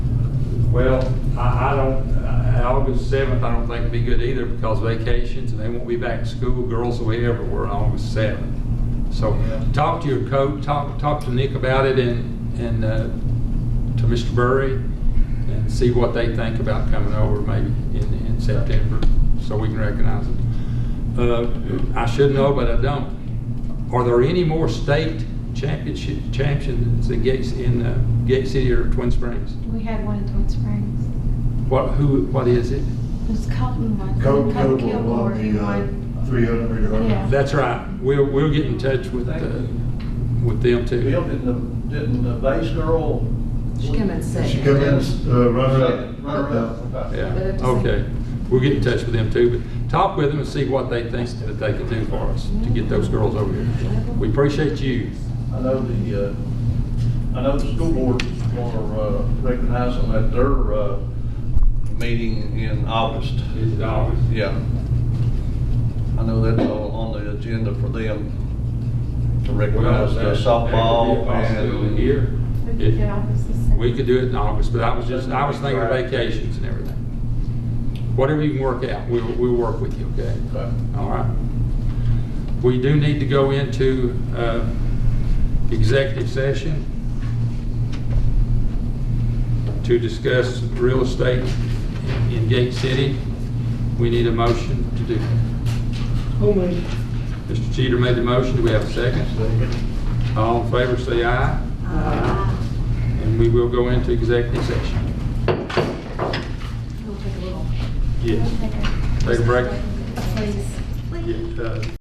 Well, I, I don't, uh, August seventh, I don't think would be good either because vacations and they won't be back in school. Girls will be everywhere on August seventh. So Yeah. talk to your coach, talk, talk to Nick about it and, and, uh, to Mr. Burry and see what they think about coming over maybe in, in September so we can recognize it. Uh, I should know, but I don't. Are there any more state championship, champions in Gates, in, uh, Gate City or Twin Springs? We had one in Twin Springs. What, who, what is it? It was Colton one. Coke, Coke will Kilgore, want he the, uh, won. three hundred hurdles. Yeah. That's right. We'll, we'll get in touch with, uh, with them Bill, too. didn't the, didn't the base girl? She come in second. She come in, uh, runner up. Runner up. Yeah, But it's- okay. We'll get in touch with them too, but talk with them and see what they think that they can do for us to get those girls over here. We appreciate you. I know the, uh, I know the school board is gonna, uh, recognize them at their, uh, meeting in August. Yeah. I know that's all on the agenda for them to recognize the softball and. Here. We could get off as the second. We could do it in August, but I was just, I was thinking of vacations and everything. Whatever you can work out, we'll, we'll work with you, okay? Okay. All right. We do need to go into uh, executive session to discuss real estate in Gate City. We need a motion to do. that. Mr. Cheater made the motion. Do we have a second? All in favor, say aye. Aye. And we will go into executive session. We'll take a little. Yes. Okay. Take a break. Please. Get, uh,